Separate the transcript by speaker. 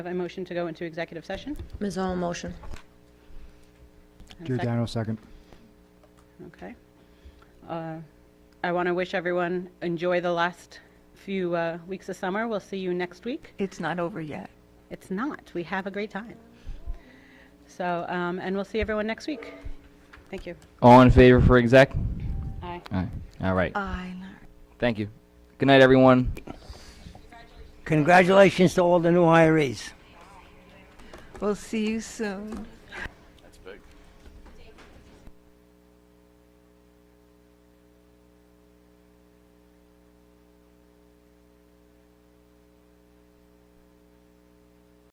Speaker 1: Have a motion to go into executive session?
Speaker 2: Ms. Owen, motion.
Speaker 1: And a second?
Speaker 3: Giordano, second.
Speaker 1: Okay. Uh, I want to wish everyone, enjoy the last few uh, weeks of summer. We'll see you next week.
Speaker 4: It's not over yet.
Speaker 1: It's not, we have a great time. So, um, and we'll see everyone next week. Thank you.
Speaker 5: All in favor for exec?
Speaker 1: Aye.
Speaker 5: All right. All right.
Speaker 4: I know.
Speaker 5: Thank you. Good night, everyone.
Speaker 6: Congratulations to all the new hirees.
Speaker 4: We'll see you soon.